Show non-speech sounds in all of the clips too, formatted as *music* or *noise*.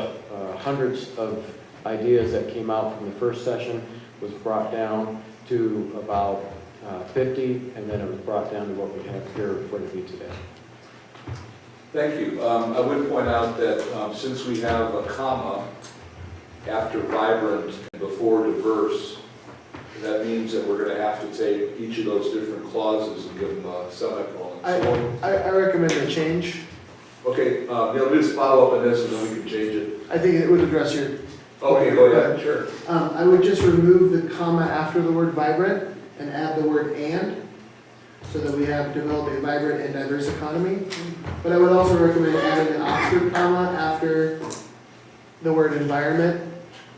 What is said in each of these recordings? Uh, hundreds of ideas that came out from the first session was brought down to about uh, 50, and then it was brought down to what we have here for the be today. Thank you. Um, I would point out that um, since we have a comma after vibrant and before diverse, that means that we're going to have to take each of those different clauses and give them a semicolon. So, I, I recommend a change. Okay, uh, Neil, do this follow up on this and then we can change it. I think it would address your, Okay, go ahead, sure. um, I would just remove the comma after the word vibrant and add the word and, so that we have developed a vibrant and diverse economy. But I would also recommend adding an Oxford comma after the word environment,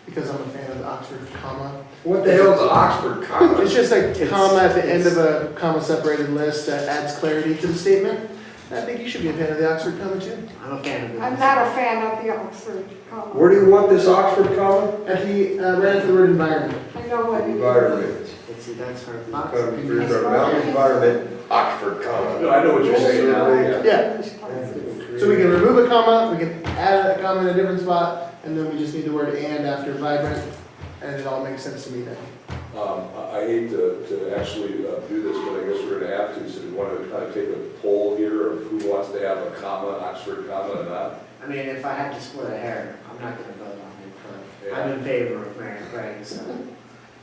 because I'm a fan of the Oxford comma. What the hell is Oxford comma? It's just like It's- comma at the end of a comma-separated list that adds clarity to the statement. I think you should be a fan of the Oxford comma too. I'm a fan of I'm this. not a fan of the Oxford comma. Where do you want this Oxford comma? At the, uh, right after the word environment. I know what it is. Environment. Let's see, that's hard. Come through the mountain environment, Oxford *laughs* No, comma. I know what you're saying now, yeah. Yeah, So we can remove a comma, we can add a comma in a different spot, and then we just need the word and after vibrant, and it all makes sense to me then. Um, I I hate to, to actually uh, do this, but I guess we're gonna have to, so we wanna kind of take a poll here of who wants to have a comma, Oxford comma or not. I mean, if I had to split a hair, I'm not gonna vote on it, but I'm Yeah. in favor of Mayor Craig, so.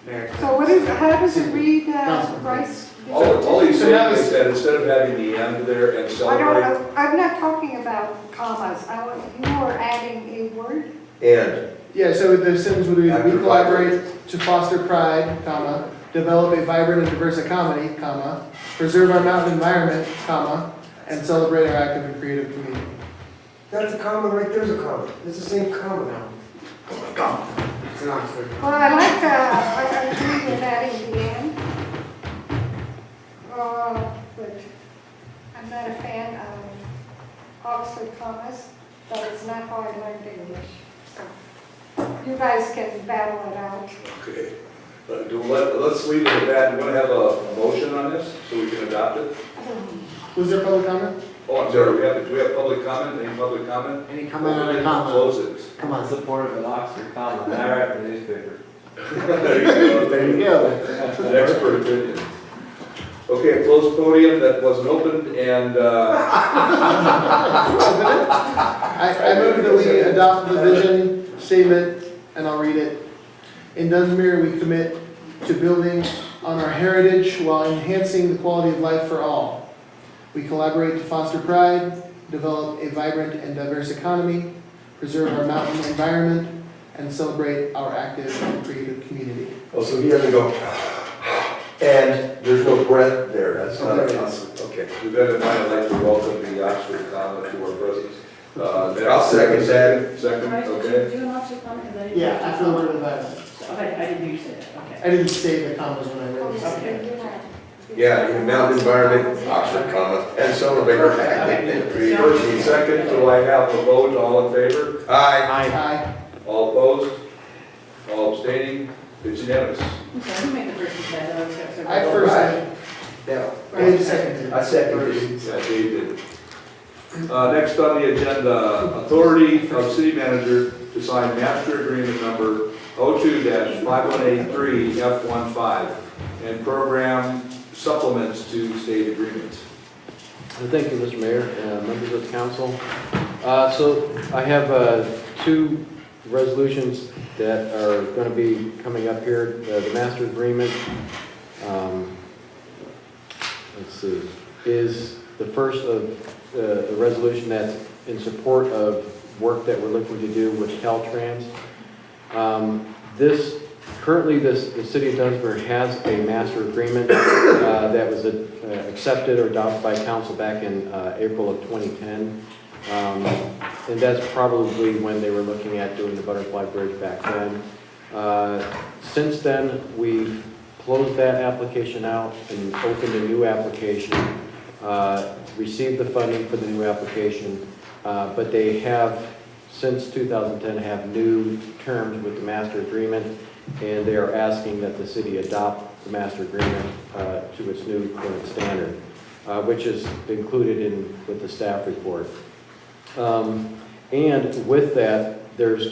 Mayor Craig. So what is, how does it read, uh, Councilman. Bryce? All, all he's So saying now is it's- that instead of having the end there and I don't, celebrate, know. I'm not talking about commas, I, want- you are adding a word, And, Yeah, so the sentence would be, After we collaborate to foster pride, comma, develop a vibrant and diverse economy, comma, preserve our mountain environment, comma, and celebrate our active and creative community. that's a comma, right there's a comma. It's the same comma. It's an Oxford. well, I like, uh, I I agree with adding the end. Uh, but I'm not a fan of Oxford commas, but it's not how I learned English, so. You guys can battle it out. okay. Uh, do, let, let's leave it at that, you wanna have a, a motion on this, so we can adopt it? Was there public comment? Oh, I'm sorry, we have, do we have public comment, any public comment? Any comment on We a can comma? Close it. Come on. Support of an Oxford comma, I write the newspaper. There you go. There you go. An expert opinion. Okay, closed podium that wasn't opened, and, uh, I, I move that we adopt the vision statement, and I'll read it. In Dunsmere, we commit to building on our heritage while enhancing the quality of life for all. We collaborate to foster pride, develop a vibrant and diverse economy, preserve our mountain environment, and celebrate our active and creative community. Oh, so he has to go, and there's no breath there, that's not Oh, a there it comma. is. Okay. With that in mind, I'd like to welcome the Oxford comma to our presence. Uh, next- I'll second that. Second, Bryce, did okay. you do an option comment? 'Cause I didn't- Yeah, after the word environment. Okay, I didn't hear you say that, okay. I didn't say the commas when I read this. Yeah, your mountain environment, Oxford comma, and celebrate our active and First creative. and second, do I have a vote, all in favor? Aye. Aye. All opposed? All abstaining? It's unanimous. I'm sorry, who made the first mistake? I was gonna say- I first, I Now, did second. I second it. Yeah, Dave did. Uh, Next on the agenda, authority of city manager to sign master agreement number 02-5183F15 and program supplements to state agreements. And Thank you, Mr. Mayor, uh, members of the council. Uh, So I have uh, two resolutions that are going to be coming up here, Uh, the master agreement. um, Let's see, is the first of uh, the resolution that's in support of work that we're looking to do with Caltrans. Um, This, currently, this, the city of Dunsmere has a master agreement uh, that was uh, accepted or adopted by council back in uh, April of 2010. Um, And that's probably when they were looking at doing the butterfly bridge back then. Uh, Since then, we've closed that application out and opened a new application, uh, received the funding for the new application, uh, but they have, since 2010, have new terms with the master agreement, and they are asking that the city adopt the master agreement uh, to its new current standard, uh, which is included in, with the staff report. Um, And with that, there's